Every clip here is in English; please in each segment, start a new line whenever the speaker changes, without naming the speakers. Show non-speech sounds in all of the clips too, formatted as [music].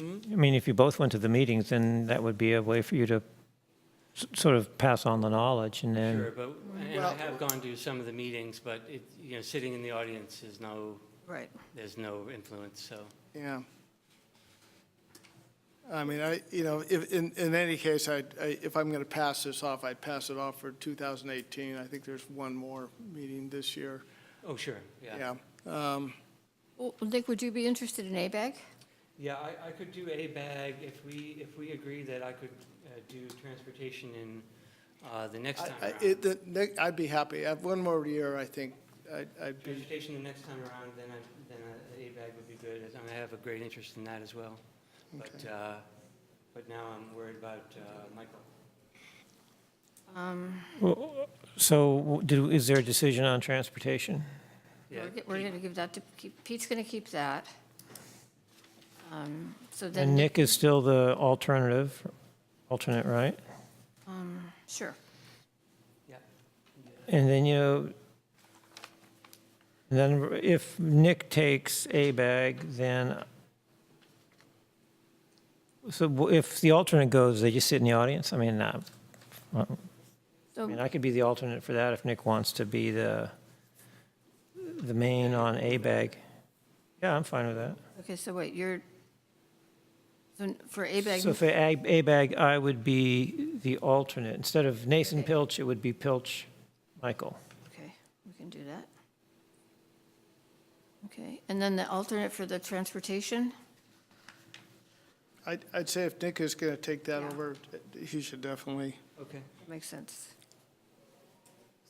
I mean, if you both went to the meetings, then that would be a way for you to s- sort of pass on the knowledge and
Sure,
then,
but, and I have gone to some of the meetings, but it, you know, sitting in the audience is no,
Right.
there's no influence, so.
Yeah. I mean, I, you know, if, in, in any case, I, I- if I'm going to pass this off, I'd pass it off for 2018. I think there's one more meeting this year.
Oh, sure, yeah.
Yeah. Um,
Well, Nick, would you be interested in ABAG?
Yeah, I, I could do a bag if we, if we agree that I could uh, do transportation in uh, the next
I-
time
I-
around.
it- the- the- I'd be happy. I have One more year, I think, I'd- I'd be,
Transportation the next time around, then I, then a- a bag would be good, as I have a great interest in that as well. But, uh, but now I'm worried about uh, Michael.
Well, so w- do, is there a decision on transportation?
Yeah,
We're g- We're going to give that to, keep- Pete's going to keep that. Um, So
And
then, Nick-
Nick is still the alternative, alternate, right?
um, sure.
yeah.
And then, you know, then if Nick takes a bag, then, so w- if the alternate goes, they just sit in the audience? I mean, uh, I mean,
So,
I could be the alternate for that if Nick wants to be the, the main on a bag. Yeah, I'm fine with that.
okay, so wait, you're, so n- for ABAG,
So for a a bag, I would be the alternate. Instead of Nathan Pilch, it would be Pilch Michael.
okay, we can do that. Okay, and then the alternate for the transportation?
I'd, I'd say if Nick is going to take that
Yeah.
over, he should definitely.
Okay.
Makes sense.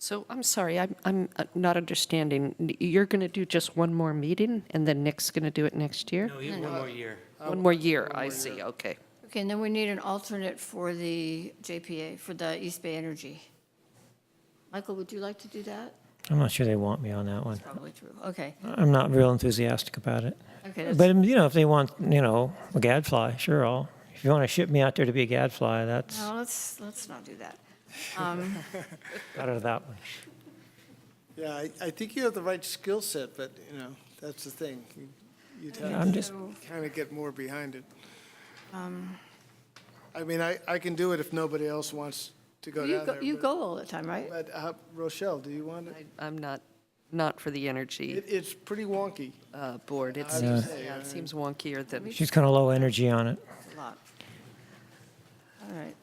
So I'm sorry, I'm, I'm uh, not understanding. N- You're going to do just one more meeting and then Nick's going to do it next year?
No, you have one more year.
One more year, I see, okay.
Okay, and then we need an alternate for the JPA, for the East Bay Energy. Michael, would you like to do that?
I'm not sure they want me on that one.
Probably true, okay.
I'm not real enthusiastic about it.
Okay, that's-
But, um, you know, if they want, you know, a gadfly, sure, I'll, if you want to ship me out there to be a gadfly, that's
No, let's, let's not do that.
out of that one.
Yeah, I, I think you have the right skill set, but, you know, that's the thing. You- You'd have
I'm just,
Um, So,
kind of get more behind it.
Um.
I mean, I, I can do it if nobody else wants to go
You
down
go,
there.
you
but-
go all the time, right?
But uh, Rochelle, do you want it?
I- I'm not, not for the
It,
energy
it's pretty wonky.
uh, board. It
I was
seems,
gonna say,
yeah,
I-
it seems wonkier than,
she's kind of low energy on it.
It's a lot. All right.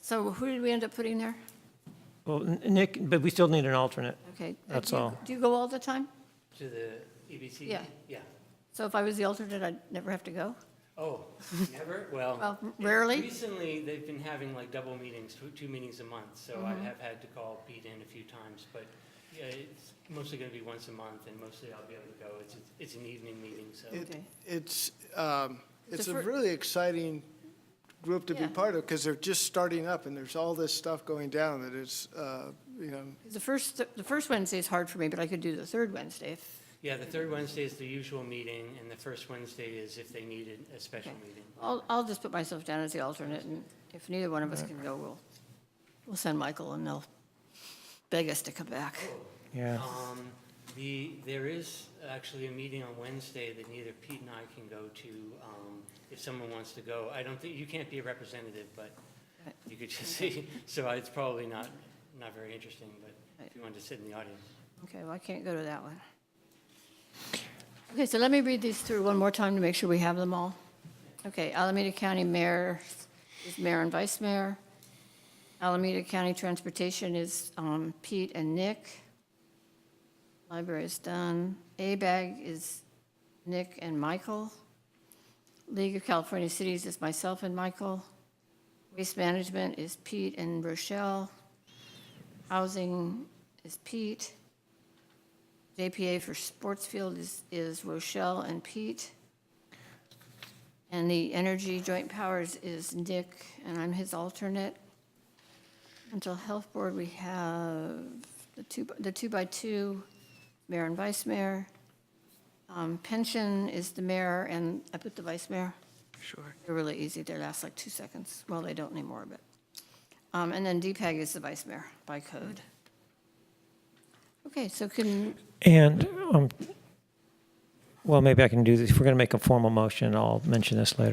So who did we end up putting there?
Well, N- Nick, but we still need an alternate.
Okay. Uh,
That's
do you-
all.
Do you go all the time?
To the EBC?
Yeah.
Yeah.
So if I was the alternate, I'd never have to go?
Oh, never? Well.
Well, rarely.
Recently, they've been having like double meetings, two, two meetings a month, so I
Mm-hmm.
have had to call Pete in a few times, but yeah, it's mostly going to be once a month, and mostly I'll be able to go. It's, it's an evening meeting, so.
It-
Okay.
It's, um, it's
The
a
fir-
really exciting group to be
Yeah.
part of because they're just starting up and there's all this stuff going down that is, uh, you know,
The first, the first Wednesday is hard for me, but I could do the third Wednesday if,
Yeah, the third Wednesday is the usual meeting, and the first Wednesday is if they needed a special
Okay.
meeting.
I'll, I'll just put myself down as the alternate, and if neither one of us can go, we'll, we'll send Michael, and they'll beg us to come back.
Yeah.
Um, The, there is actually a meeting on Wednesday that neither Pete and I can go to, um, if someone wants to go. I don't think, you can't be a representative, but
Right.
you could [laughs] just see, so it's probably not, not very interesting, but if you wanted to sit in the audience.
Okay, well, I can't go to that one. Okay, so let me read these through one more time to make sure we have them all. Okay, Alameda County Mayor is Mayor and Vice Mayor. Alameda County Transportation is um, Pete and Nick. Library is done. A-Bag is Nick and Michael. League of California Cities is myself and Michael. Waste Management is Pete and Rochelle. Housing is Pete. JPA for Sportsfield is, is Rochelle and Pete. And the Energy Joint Powers is Nick, and I'm his alternate. Mental Health Board, we have the two, the two-by-two, mayor and vice mayor. Um, Pension is the mayor, and I put the vice mayor. Sure. They're really easy, they last like two seconds. Well, they don't anymore, but. Um, And then DPEG is the vice mayor by code. Okay, so can,
And, um, well, maybe I can do this. If we're going to make a formal motion, I'll mention this later.